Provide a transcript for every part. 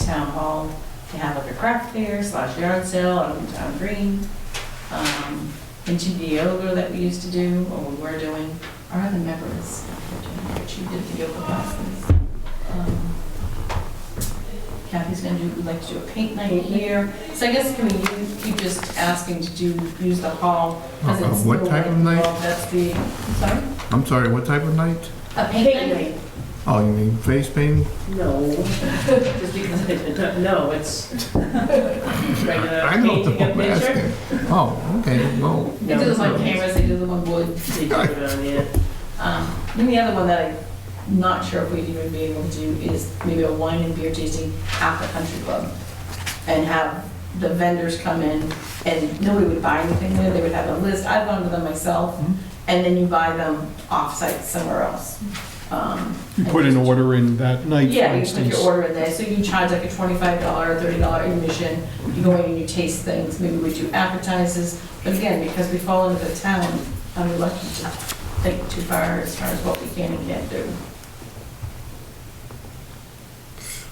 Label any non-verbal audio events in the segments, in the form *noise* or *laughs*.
town hall to have like a craft fair slash yard sale on town green. Um, Into the yoga that we used to do, or we were doing, our other members, she did the yoga classes. Um, Kathy's gonna do, would like to do a paint night here. So I guess can we use- keep just asking to do, use the hall? 'cause Uh, uh, it's what still, type like, of night? well, That's the, sorry? I'm sorry, what type of night? A paint night? Oh, you mean face painting? No, *laughs* just because I, no, *laughs* it's regular I know painting the a I'm picture. asking. Oh, okay, well, They do No, this on no. cameras, they do the one wood. They do it on, yeah. Um, Then the other one that I'm not sure if we'd even be able to do is maybe a wine and beer tasting at the country club. And have the vendors come in and nobody would buy anything there, they would have a list, I've gone to them myself. Mhm. And then you buy them off-site somewhere else. Um, You put an order in that night, for Yeah, you put instance. your order in there, so you charge like a twenty-five dollar, thirty dollar admission, you go in and you taste things, maybe we do appetizers, but again, because we fall into the town, I'm lucky to think too far as far as what we can and can't do.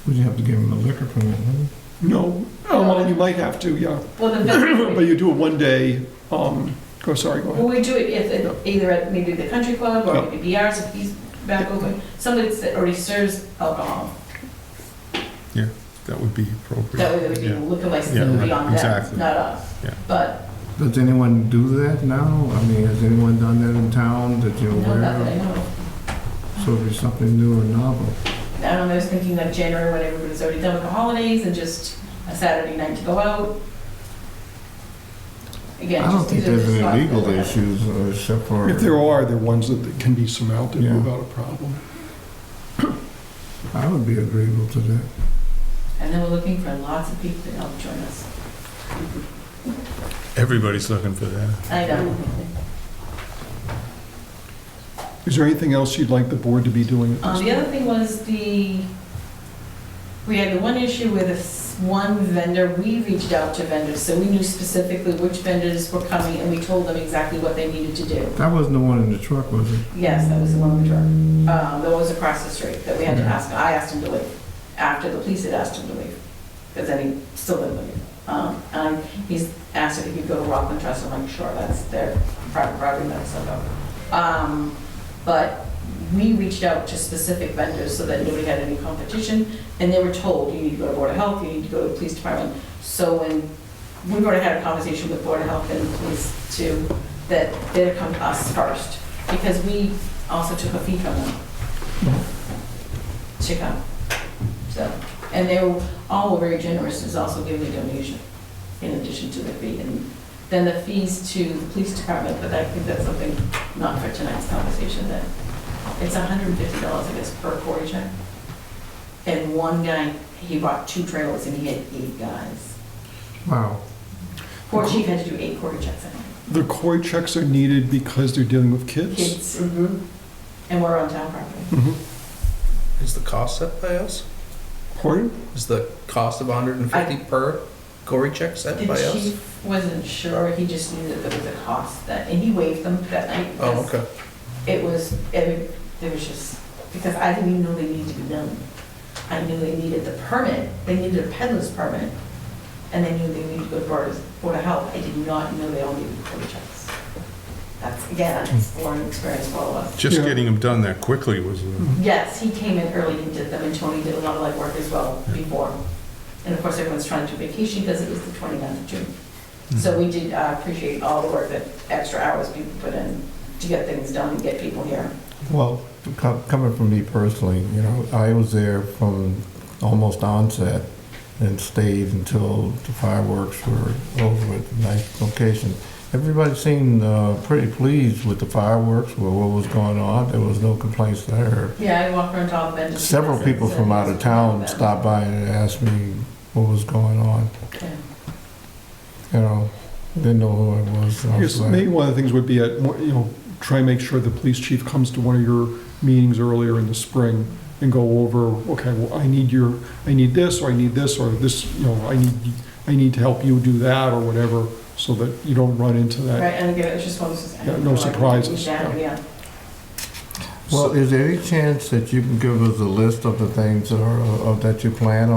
would you have to give him a liquor permit? huh? No, oh, well, you might have to, yeah. Well, *laughs* the, But vendor- you do it one day, um, go, sorry, go well, ahead. we do it if- if, either at maybe the country club or maybe BR's if he's back open, somebody that already serves alcohol, That would be appropriate. that way there would be Yeah. liquor license Yeah, that would be right, on them, exactly. not us. Yeah. But, Does anyone do that now? I mean, has anyone done that in town that you're no, aware not that I of? know of. So it'd be something new or novel. I don't know, I was thinking like January when everybody's already done with the holidays and just a Saturday night to go out. Again, I don't just think these are there's the any spots legal that we have. issues uh, except for. If there are, they're ones that can be surmounted Yeah. without a problem. I would be agreeable to that. And then we're looking for lots of people to help join us. Everybody's looking for that. I know. Is there anything else you'd like the board to be doing at Um, this the other thing was the, we had the one issue with this one vendor, we reached out to vendors, so we knew specifically which vendors were coming and we told them exactly what they needed to do. That wasn't the one in the truck, was it? Yes, that was the one we drove. Um, that was across the street that we had to Yeah. ask, I asked him to leave, after the police had asked him to leave, because then he still didn't leave. Um, and he's asked if he could go to Rockland Trust, I'm like, sure, that's their private property, that's so go. Um, but we reached out to specific vendors so that nobody had any competition, and they were told, you need to go to Board of Health, you need to go to the police department. So when, we already had a conversation with Board of Health and police too, that they'd come to us first, because we also took a fee from them. To come. So, and they were, all were very generous, is also giving a donation in addition to the fee. And then the fees to the police department, but I think that's something not for tonight's conversation, that it's hundred and fifty dollars, I guess, per quarry check. And one guy, he bought two trailers and he had eight guys. Wow. Poor chief had to do eight quarry checks, I think. The core checks are needed because they're dealing with kids. kids. And we're on town property. Mhm. Is the cost set by us? Pardon? Is the cost of 150 per Cory check set by The us? chief wasn't sure, he just knew that there was a cost that, and he waived them that night. Oh, because okay. It was, it, there was just, because I didn't even know they needed to be done. I knew they needed the permit, they needed a peddler's permit, and they knew they needed to go to Board of, Board of Health. I did not know they all needed quarter checks. That's, again, Hmm. that's a learning experience for all of us. Just Yeah. getting them done that quickly was, uh, Yes, he came in early and did them, and Tony did a lot of like work as well before. And of course, everyone's trying to vacation because it was the 29th of June. So we did uh, appreciate all the work that extra hours people put in to get things done and get people here. Well, co- coming from me personally, you know, I was there from almost onset and stayed until the fireworks were over at a nice location. Everybody seemed uh, pretty pleased with the fireworks, with what was going on. There was no complaints there. Yeah, I walked around top of it. just- Several people from out of town stopped by and asked me what was going on, Yeah. you know. Didn't know who I was. so I I was guess like- maybe one of the things would be at, you know, try and make sure the police chief comes to one of your meetings earlier in the spring and go over, okay, well, I need your, I need this, or I need this, or this, you know, I need, I need to help you do that, or whatever, so that you don't run into that. Right, and again, it's just one of those. I Yeah, don't no know, I couldn't surprises, get down, yeah. Yeah. Well, is there any chance uh, that you can give us a list of the things that are, of- that you plan on?